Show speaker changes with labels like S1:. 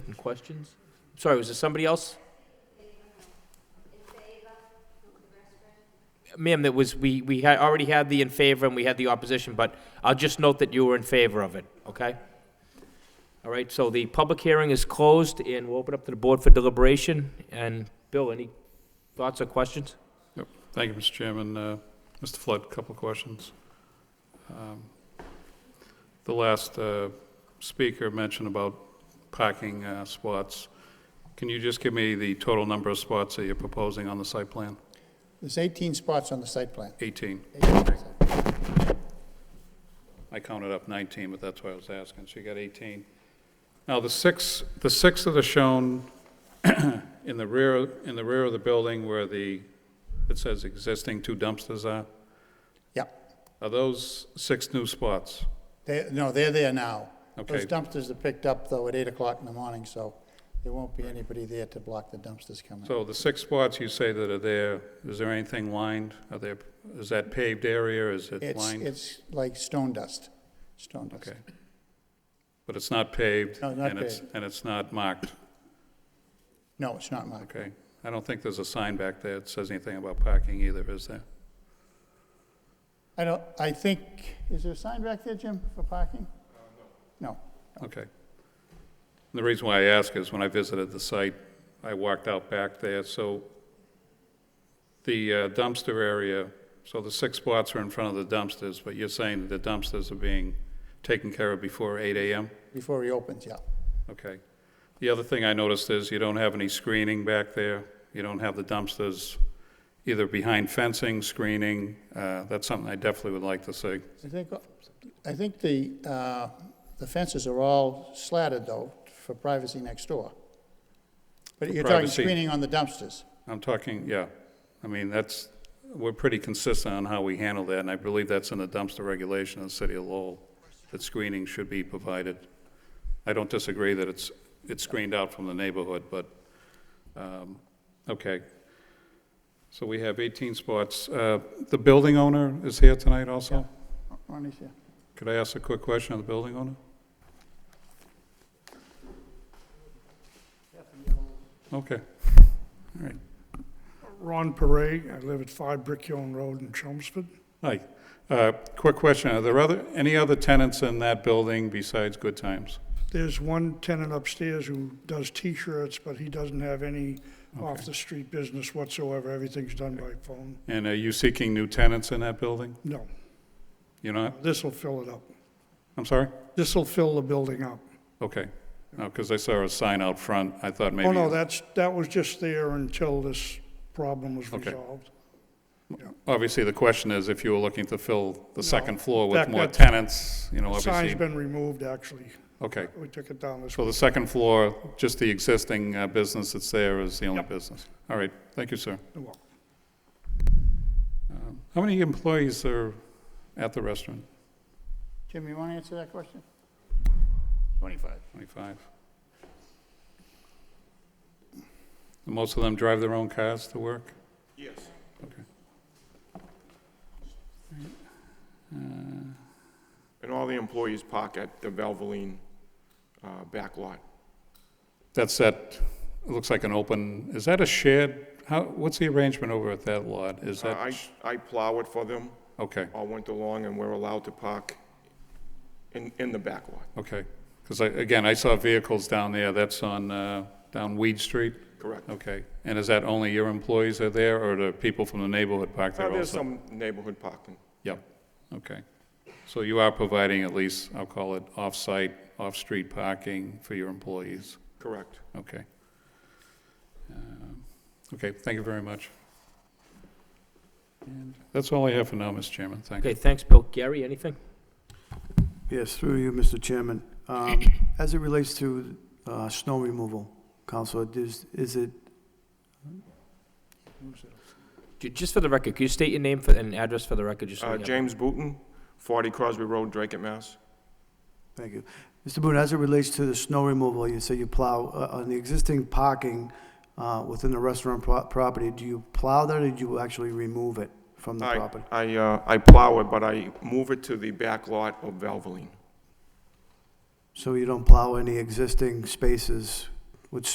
S1: questions? Sorry, was there somebody else? Ma'am, that was, we, we had, already had the in favor and we had the opposition, but I'll just note that you were in favor of it, okay? All right, so the public hearing is closed and we'll open up to the board for deliberation. And Bill, any thoughts or questions?
S2: Thank you, Mr. Chairman. Uh, Mr. Flood, a couple of questions. Um, The last uh, speaker mentioned about parking uh, spots. Can you just give me the total number of spots that you're proposing on the site plan?
S3: There's 18 spots on the site plan.
S2: 18.
S3: 18 on the site plan.
S2: I counted up 19, but that's why I was asking, so you got 18. Now, the six, the six that are shown in the rear, in the rear of the building where the, it says existing two dumpsters are,
S3: Yeah,
S2: are those six new spots?
S3: they, no, they're there now. Those
S2: Okay.
S3: dumpsters are picked up though at 8 o'clock in the morning, so there won't be anybody there to block the dumpsters coming.
S2: So the six spots you say that are there, is there anything lined? Are there, is that paved area, is it
S3: It's,
S2: lined?
S3: it's like stone dust, stone dust.
S2: Okay. But it's not paved?
S3: No, not
S2: and it's- And it's not marked,
S3: No, it's not marked.
S2: okay? I don't think there's a sign back there that says anything about parking either, is there?
S3: I don't, I think, is there a sign back there, Jim, for parking? No.
S2: Okay. The reason why I ask is when I visited the site, I walked out back there, so the uh, dumpster area, so the six spots are in front of the dumpsters, but you're saying that the dumpsters are being taken care of before 8 AM?
S3: Before he opens, yeah.
S2: Okay. The other thing I noticed is you don't have any screening back there. You don't have the dumpsters either behind fencing, screening. Uh, That's something I definitely would like to see.
S3: I think, uh, I think the, uh, the fences are all slatted though, for privacy next door. But
S2: For
S3: you're talking
S2: privacy.
S3: screening on the dumpsters.
S2: I'm talking, yeah, I mean, that's, we're pretty consistent on how we handle that, and I believe that's in the dumpster regulation of the city of Lowell, that screening should be provided. I don't disagree that it's, it's screened out from the neighborhood, but, um, okay. So we have 18 spots. Uh, The building owner is here tonight also?
S3: Ronnie's here.
S2: Could I ask a quick question of the building owner? Okay, all right.
S4: Ron Perret, I live at 5 Brick Hill Road in Chelmsford.
S2: Hi. Uh, Quick question. Are there other, any other tenants in that building besides Good Times?
S4: There's one tenant upstairs who does T-shirts, but he doesn't have any off-the-street business whatsoever. Everything's done by phone.
S2: And are you seeking new tenants in that building?
S4: No,
S2: You're not?
S4: this'll fill it up.
S2: I'm sorry?
S4: This'll fill the building up. Oh,
S2: Okay. No, because I saw a sign out front. I thought maybe.
S4: Oh, no, that's, that was just there until this problem was
S2: Okay.
S4: resolved.
S2: Obviously, the question is if you were looking to fill the second floor
S4: That-
S2: with more
S4: that-
S2: tenants, you know,
S4: Sign's
S2: obviously.
S4: been removed, actually.
S2: Okay.
S4: We took it down this
S2: So the second floor, just the existing uh, business that's there is the only
S4: Yep.
S2: business? All right. Thank you, sir.
S4: well,
S2: Um, How many employees are at the restaurant?
S3: Jim, you want to answer that question?
S2: 25. And Most of them drive their own cars to work? Yes. Okay.
S5: And all the employees park at the Valvoline uh, back lot.
S2: That's that, it looks like an open, is that a shared, how, what's the arrangement over at that lot? Is
S5: Uh, I,
S2: that,
S5: I plow it for them
S2: okay,
S5: all winter long, and we're allowed to park in, in the back lot,
S2: okay. Because I, again, I saw vehicles down there, that's on, uh, down Weed Street?
S5: correct?
S2: Okay. And is that only your employees are there, or do people from the neighborhood park there
S5: Uh,
S2: also?
S5: There's some neighborhood parking,
S2: Yep, okay. So you are providing at least, I'll call it, off-site, off-street parking for your employees?
S5: correct?
S2: Okay. Um, Okay, thank you very much. And that's all I have for now, Mr. Chairman, thank
S1: Okay,
S2: you.
S1: thanks, Bill. Gary, anything?
S6: Yes, through you, Mr. Chairman. Um, As it relates to uh, snow removal, Counselor, is is it,
S1: Ju- Just for the record, could you state your name for- and address for the record? just so we
S5: Uh,
S1: have-
S5: James Booton, 40 Crosby Road, Drake at Mass.
S6: thank you. Mr. Boone, as it relates to the snow removal, you say you plow, uh, on the existing parking uh, within the restaurant pro- property, do you plow that or do you actually remove it from the
S5: I-
S6: property?
S5: I, uh, I plow it, but I move it to the back lot of Valvoline,
S6: So you don't plow any existing spaces